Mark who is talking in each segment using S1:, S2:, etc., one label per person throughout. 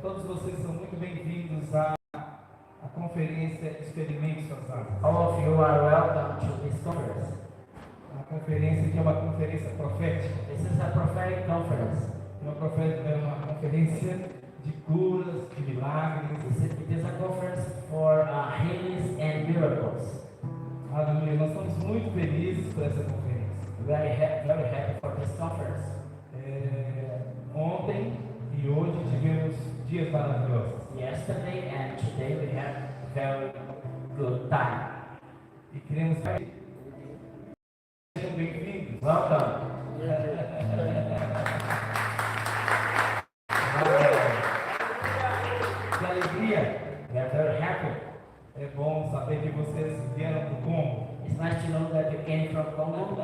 S1: todos vocês são muito bem-vindos à, à conferência Experimente Suas Águas.
S2: All of you are welcome to this conference.
S1: Uma conferência que é uma conferência profética.
S2: This is a prophetic conference.
S1: Uma, profética, é uma conferência de curas, de milagres.
S2: It it is a conference for uh, healings and miracles.
S1: Aleluia. Nós estamos muito felizes por essa conferência.
S2: Very happy, very happy for this conference.
S1: É, ontem e hoje tivemos dias maravilhosos.
S2: Yesterday and today we had very good time.
S1: E queremos sejam bem-vindos.
S2: Welcome.
S1: Que alegria!
S2: We are very happy.
S1: É bom saber que vocês vieram para o Congo.
S2: It's nice to know that you came from Congo.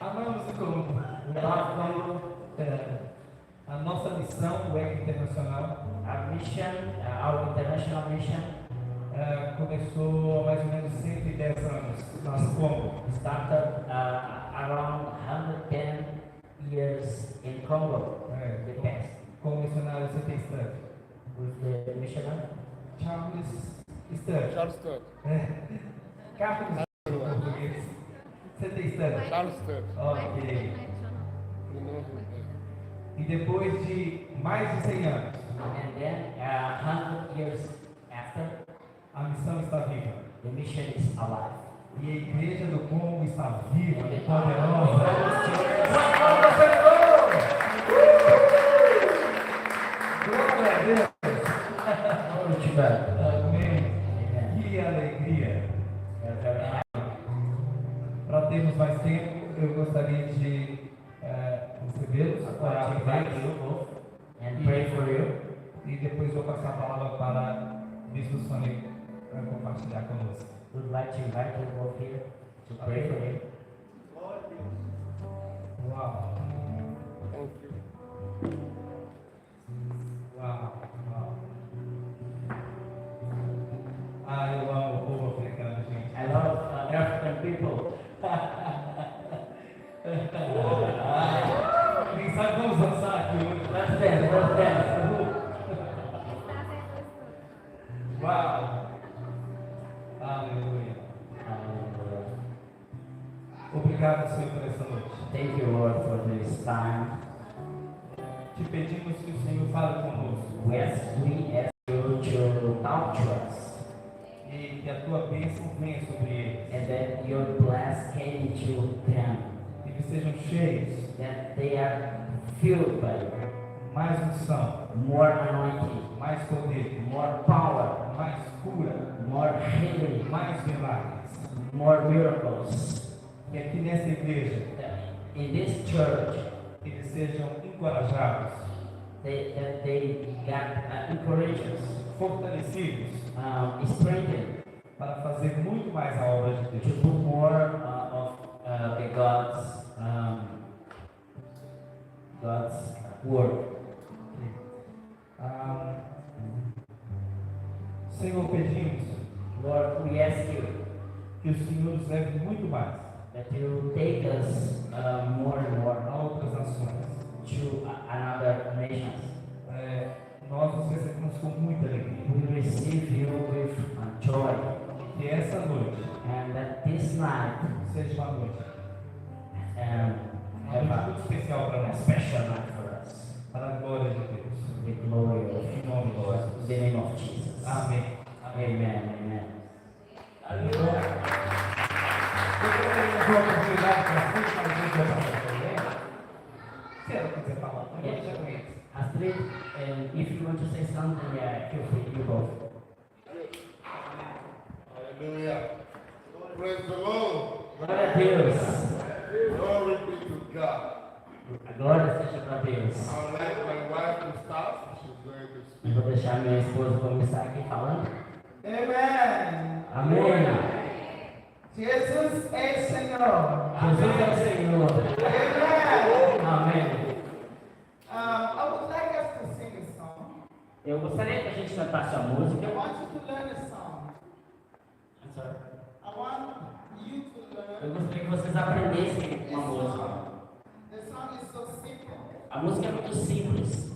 S1: Amamos o Congo.
S2: We love Congo.
S1: É, a nossa missão do EC Internacional
S2: Our mission, uh, our international mission,
S1: é, começou há mais ou menos 110 anos lá no Congo.
S2: started uh, around 110 years in Congo.
S1: É,
S2: The past.
S1: com o missionário C.T. Sturge.
S2: with the missionary.
S1: Charles Sturge.
S3: Charles Tuck.
S1: Carlos Sturge, em português. C.T. Sturge.
S3: Charles Tuck.
S1: Ok.
S3: O nome dele.
S1: E depois de mais de 100 anos,
S2: And then, uh, 100 years after,
S1: a missão está viva.
S2: the mission is alive.
S1: E a igreja do Congo está viva e
S2: All
S1: poderosa.
S2: those children,
S1: Glória a Deus.
S2: all the children,
S1: Amém. Que alegria.
S2: they are very happy.
S1: Para termos mais tempo, eu gostaria de eh, recebê-los, orar
S2: God
S1: por
S2: invite you
S1: eles
S2: both and pray for you.
S1: e depois vou passar a palavra para o Bispo Sônico para compartilhar conosco.
S2: Would like to invite you both here to pray for you.
S1: Uau,
S3: Thank you.
S1: uau, uau. Ah, eu amo o povo africano, gente.
S2: I love uh, African people.
S1: Quem sabe vamos dançar aqui hoje. né?
S2: Let's dance, let's dance.
S1: Uau! Aleluia.
S2: Uh,
S1: Obrigado, Senhor, por essa noite.
S2: Thank you, Lord, for this time.
S1: Te pedimos que o Senhor fale conosco
S2: We ask, we ask you to talk to us
S1: e que a tua bênção venha sobre eles.
S2: and that your bless came to them,
S1: Que eles sejam cheios,
S2: that they are filled by you.
S1: mais unção,
S2: more anointing,
S1: mais poder,
S2: more power,
S1: mais cura,
S2: more healing,
S1: mais milagres.
S2: more miracles.
S1: Que aqui nessa igreja
S2: That In this church,
S1: eles sejam encorajados,
S2: they, that they got uh, encouraged,
S1: fortalecidos
S2: um, strengthened
S1: para fazer muito mais a obra de
S2: to
S1: Deus.
S2: do more uh, of uh, the God's um, God's work.
S1: Ah, Senhor, pedimos
S2: Lord, we ask you
S1: que o Senhor nos leve muito mais
S2: that you take us uh, more and
S1: a
S2: more
S1: outras nações.
S2: to a- another nations.
S1: É, nós nos recebemos com muita alegria.
S2: We receive you with uh, joy,
S1: Que essa noite
S2: and that this night
S1: seja uma noite,
S2: um,
S1: uma
S2: have
S1: noite
S2: a,
S1: muito especial para
S2: a
S1: nós,
S2: special night for us.
S1: para a glória de Deus.
S2: The glory of
S1: Em nome de Jesus.
S2: the name of Jesus.
S1: Amém.
S2: Amen. Amen.
S1: Eu quero ter uma oportunidade para vocês para a gente orar também. Se ela quiser falar, eu já conheço.
S2: Astrid, um, if you want to say something, yeah, feel free. You go.
S3: Hallelujah. Praise the Lord.
S2: Glória a Deus.
S3: Glory be to God.
S2: A glória seja para Deus.
S3: I would like my wife to start. She's going to
S2: Eu vou deixar minha esposa começar aqui falando.
S1: Amém.
S2: Amém.
S1: Jesus é Senhor.
S2: Jesus é o Senhor.
S1: Amém.
S2: Amém.
S1: Um, I would like us to sing a song.
S2: Eu gostaria que a gente cantasse a música.
S1: I want you to learn a song.
S2: I'm sorry.
S1: I want you to learn
S2: Eu gostaria que vocês aprendessem
S1: a
S2: uma música.
S1: song. The song is so simple.
S2: A música é muito simples.